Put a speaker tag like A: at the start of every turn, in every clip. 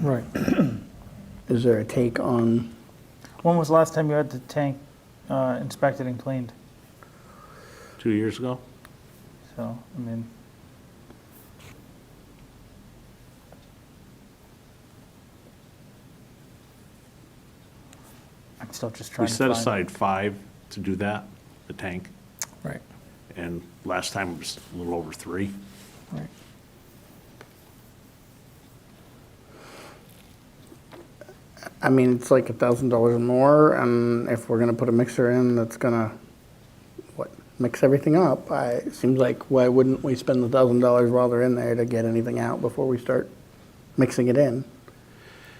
A: Right.
B: Is there a take on,
A: When was the last time you had the tank uh, inspected and cleaned?
C: two years ago.
A: So, I mean, I'm still just trying
C: We
A: to
C: set
A: find-
C: aside five to do that, the tank,
D: Right,
C: and last time it was a little over three.
D: right.
B: I mean, it's like a thousand dollars more, and if we're gonna put a mixer in that's gonna, what, mix everything up, I, it seems like, why wouldn't we spend the thousand dollars while they're in there to get anything out before we start mixing it in?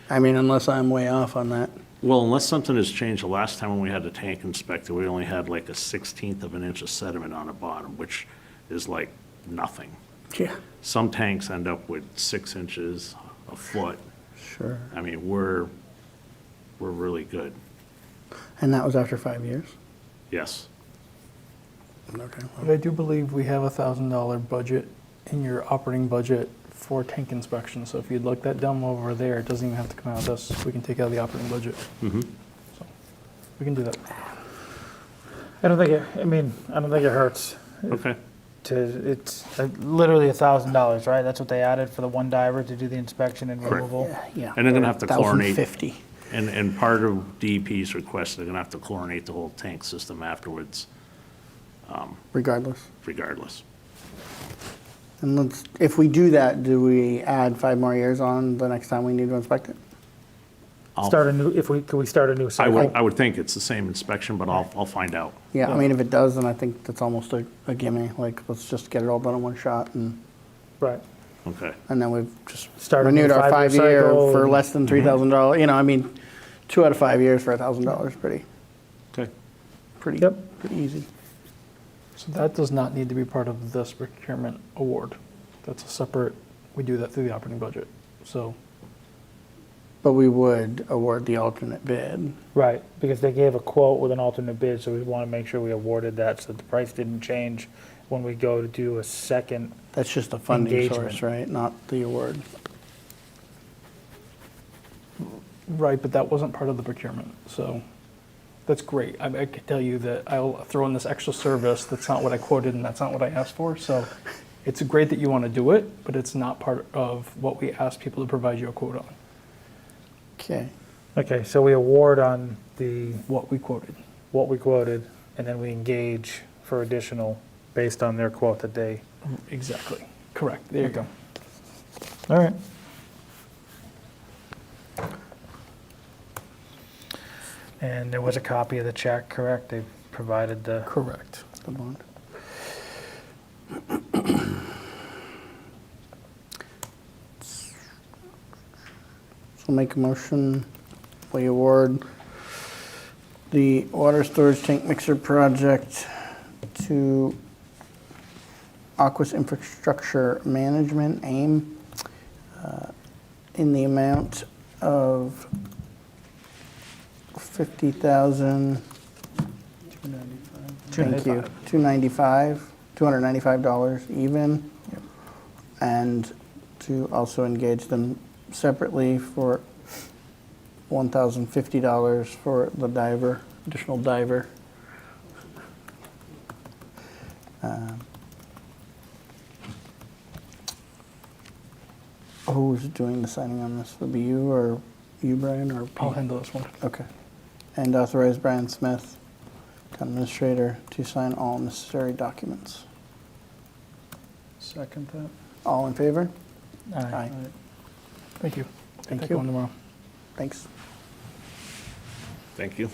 B: I mean, unless I'm way off on that.
C: Well, unless something has changed, the last time when we had the tank inspected, we only had like a sixteenth of an inch of sediment on the bottom, which is like nothing.
B: Yeah.
C: Some tanks end up with six inches, a foot.
B: Sure.
C: I mean, we're, we're really good.
B: And that was after five years?
C: Yes.
B: Okay.
D: But I do believe we have a thousand dollar budget in your operating budget for tank inspection, so if you'd like that down over there, it doesn't even have to come out of this, we can take it out of the operating budget. So, We can do that.
E: I don't think it, I mean, I don't think it hurts
C: Okay.
A: to, it's uh, literally a thousand dollars, right? That's what they added for the one diver to do the inspection and
C: Correct.
A: removal?
B: Yeah.
C: And they're gonna have to chlorinate.
B: $1,050.
C: And, and part of DEP's request, they're gonna have to chlorinate the whole tank system afterwards
B: regardless.
C: regardless.
B: And let's, if we do that, do we add five more years on the next time we need to inspect it?
C: I'll-
E: start a new, if we, could we start a new
C: I
E: cycle?
C: would, I would think it's the same inspection, but I'll, I'll find out.
B: Yeah, I mean, if it does, then I think that's almost a, a gimme, like, let's just get it all done in one shot, and,
E: Right.
C: Okay.
B: and then we've just
E: Start a new
B: renewed our
E: five-year
B: five-year
E: cycle
B: for
E: and- Mm-hmm.
B: less than three thousand dollars, you know, I mean, two out of five years for a thousand dollars, pretty,
C: Okay.
B: pretty,
E: Yep.
B: pretty easy.
D: So that does not need to be part of this procurement award. That's a separate, we do that through the operating budget, so.
B: But we would award the alternate bid,
E: Right.
A: Because they gave a quote with an alternate bid, so we want to make sure we awarded that so the price didn't change when we go to do a second.
B: that's just a funding source,
A: Engagement.
B: right, not the award.
D: Right, but that wasn't part of the procurement, so that's great. I, I can tell you that I'll throw in this extra service, that's not what I quoted and that's not what I asked for, so it's great that you want to do it, but it's not part of what we asked people to provide you a quote on,
B: Okay,
E: Okay, so we award on the,
D: what we quoted.
E: what we quoted, and then we engage for additional based on their quote that they.
D: Exactly, correct, there you go.
E: All right.
A: And there was a copy of the check, correct? They provided the,
D: Correct.
B: the bond. So make a motion, we award the water storage tank mixer project to Aquas Infrastructure Management, AIM, uh, in the amount of fifty thousand. Thank you, two ninety-five, two hundred ninety-five dollars even. And to also engage them separately for $1,050 for the diver, additional diver. Um, Who's doing the signing on this? Would be you or you, Brian, or
D: I'll
B: Paul?
D: handle this one.
B: Okay. And authorize Brian Smith, town administrator, to sign all necessary documents.
A: second that?
B: All in favor?
A: Aye.
B: Aye.
D: Thank you. Get
B: Thank
D: that
B: you.
D: going tomorrow.
B: Thanks.
C: Thank you.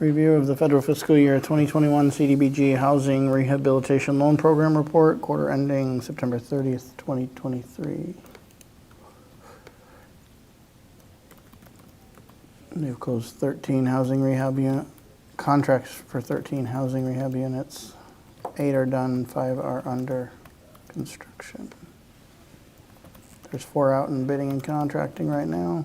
B: Review of the federal fiscal year 2021 CDBG Housing Rehabilitation Loan Program Report, quarter ending September 30th, 2023. They've closed 13 housing rehab unit, contracts for 13 housing rehab units. Eight are done, five are under construction. There's four out in bidding and contracting right now.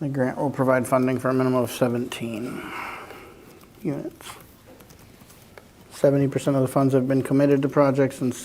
B: The grant will provide funding for a minimum of 17 units. 70% of the funds have been committed to projects and